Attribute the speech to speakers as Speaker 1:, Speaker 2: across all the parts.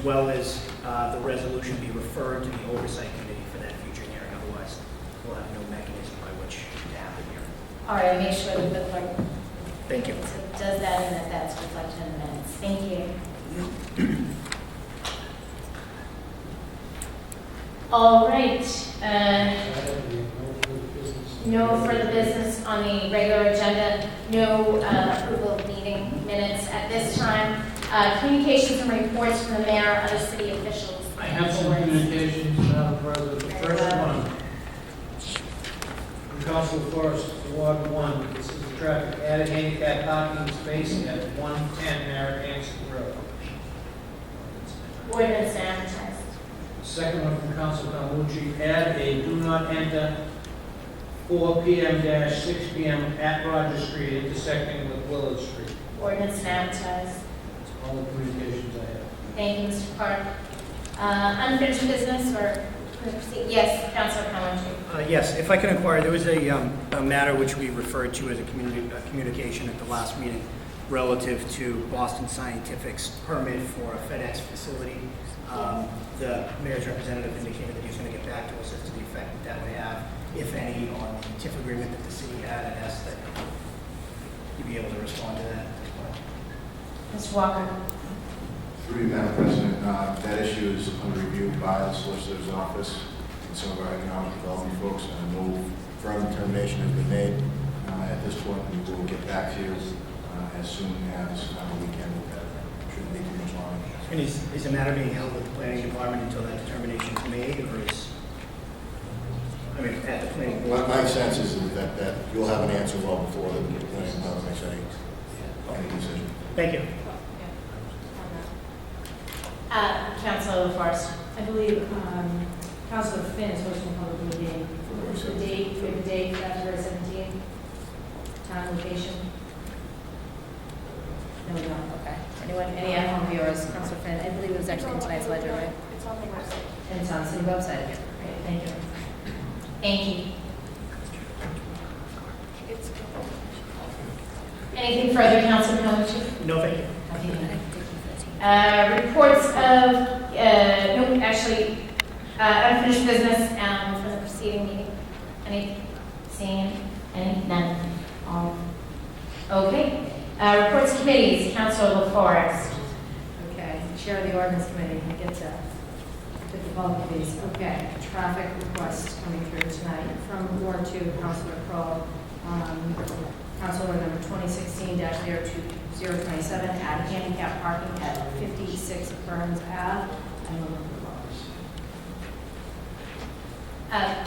Speaker 1: as well as uh, the resolution be referred to the oversight committee for that future hearing, otherwise we'll have no mechanism by which to happen here.
Speaker 2: All right, I'll make sure that the clerk
Speaker 1: Thank you.
Speaker 2: does that and that that's reflected in the minutes. Thank you. All right, uh, no further business on the regular agenda, no uh, approval of meeting minutes at this time. Uh, Communications and reports from the mayor, other city officials.
Speaker 3: I have some communications, Madam President. The first one, from Council Forest, Ward 1, this is the traffic, added handicap parking space at 110 Narragansett Road.
Speaker 2: Ordinance advertised.
Speaker 3: Second one from Council Calmucci, add a do not enter 4 PM dash 6 PM at Rogers Street intersecting with Willard Street.
Speaker 2: Ordinance advertised.
Speaker 3: That's all the communications I have.
Speaker 2: Thank you, Mr. Clark. Uh, Unfinished business or, yes, Councilor Calhoun.
Speaker 1: Uh, Yes, if I can inquire, there was a um, a matter which we referred to as a communi- a communication at the last meeting relative to Boston Scientific's permit for a FedEx facility. Um, The mayor's representative indicated that he was going to get back to us as to the effect that that would have, if any, on the TIF agreement that the city had, and asked that you be able to respond to that as well.
Speaker 2: Mr. Walker.
Speaker 4: Through you, Madam President, uh, that issue is under review by the Solicitor's Office and some of our economic development folks, and no firm determination has been made uh, at this point. We will get back to you uh, as soon as uh, we can with that. Shouldn't be too much longer.
Speaker 1: And is, is the matter being held with the planning department until that determination is made, or is, I mean, at the planning board?
Speaker 4: My my sense is that that you'll have an answer well before the planning department makes any any decision.
Speaker 1: Thank you.
Speaker 2: Uh, Councilor LaForest.
Speaker 5: I believe um, Councilor Finn is hosting a public meeting. What's the date, do we have a date, February 17th? Time, location? No, we don't, okay. Anyone, any at-home viewers, Councilor Finn, I believe it was actually in tonight's ledger, right?
Speaker 6: It's on the website.
Speaker 5: And it's on the city website again. Great, thank you.
Speaker 2: Thank you.
Speaker 6: It's.
Speaker 2: Anything further, Councilor Calhoun?
Speaker 1: No, thank you.
Speaker 2: Uh, reports of, uh, no, actually, uh, unfinished business, um, from the preceding meeting. Any, seeing, any, none, all. Okay, uh, reports committees, Councilor LaForest.
Speaker 5: Okay, Chair of the Ordinance Committee, I get to pick the bulk of these. Okay, traffic requests coming through tonight from Ward Two, Councilor Crowe. Um, Councilor number twenty sixteen 27 add handicap parking at fifty-six Burns Ave. I move approval.
Speaker 2: Uh,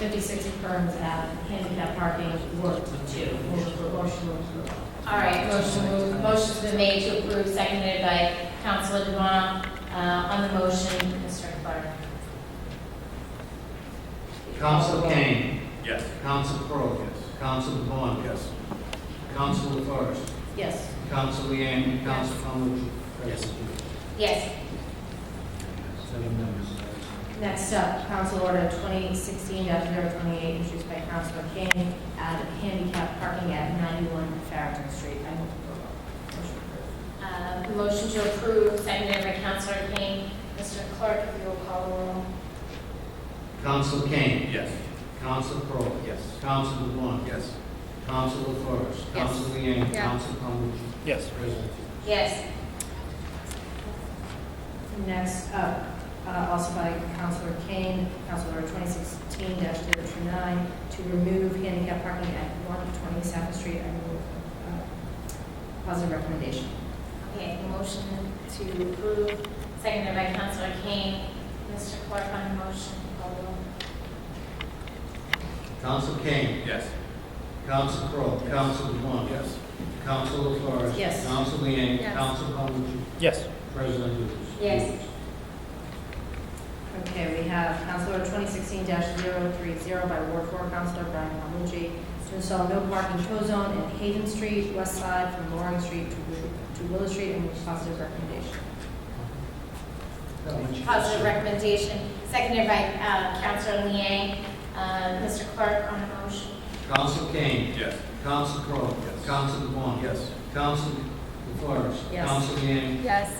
Speaker 5: Fifty-six Burns Ave, handicap parking, Ward Two. Move approval, motion to approve.
Speaker 2: All right, motion moved, motion's been made to approve, seconded by Councilor Devon. Uh, on the motion, Mr. Clark.
Speaker 3: Council Kane.
Speaker 4: Yes.
Speaker 3: Council Crowe.
Speaker 4: Yes.
Speaker 3: Council Vaughn.
Speaker 4: Yes.
Speaker 3: Council LaForest.
Speaker 5: Yes.
Speaker 3: Council Leeang, Council Calhoun.
Speaker 1: Yes.
Speaker 2: Yes,
Speaker 3: Seven members.
Speaker 5: Next up, Council Order 2016-028, introduced by Councilor Kane, add handicap parking at 91 Farragut Street. I move approval. Motion
Speaker 2: uh,
Speaker 5: approved.
Speaker 2: motion to approve, seconded by Councilor Kane. Mr. Clark, if you will call the roll.
Speaker 3: Council Kane.
Speaker 4: Yes.
Speaker 3: Council Crowe.
Speaker 4: Yes.
Speaker 3: Council Vaughn.
Speaker 4: Yes.
Speaker 3: Council LaForest. Council Leeang.
Speaker 2: Yeah.
Speaker 3: Council Calhoun.
Speaker 1: Yes.
Speaker 3: President.
Speaker 2: Yes,
Speaker 5: Next up, uh, also by Councilor Kane, Council Order 2016-029, to remove handicap parking at 120 South Street. I move uh, positive recommendation.
Speaker 2: okay, motion to approve, seconded by Councilor Kane. Mr. Clark on the motion, call the roll.
Speaker 3: Council Kane.
Speaker 4: Yes.
Speaker 3: Council Crowe.
Speaker 4: Yes.
Speaker 3: Council Vaughn. Council LaForest.
Speaker 5: Yes.
Speaker 3: Council Leeang.
Speaker 2: Yes.
Speaker 3: Council Calhoun.
Speaker 1: Yes.
Speaker 3: President Hughes.
Speaker 2: Yes.
Speaker 5: Okay, we have Counselor 2016-030 by Ward 4 Counselor Brian Palmucci to install no parking show zone in Hayden Street, West Side, from Loring Street to Wi- to Willow Street, and with positive recommendation.
Speaker 2: Positive recommendation, seconded by uh, Councilor Liang. Uh, Mr. Clark on the motion.
Speaker 3: Council Kane.
Speaker 4: Yes.
Speaker 3: Council Crowe.
Speaker 4: Yes.
Speaker 3: Council Vaughn.
Speaker 4: Yes.
Speaker 3: Council LaForest.
Speaker 5: Yes.
Speaker 3: Council Leeang.
Speaker 2: Yes.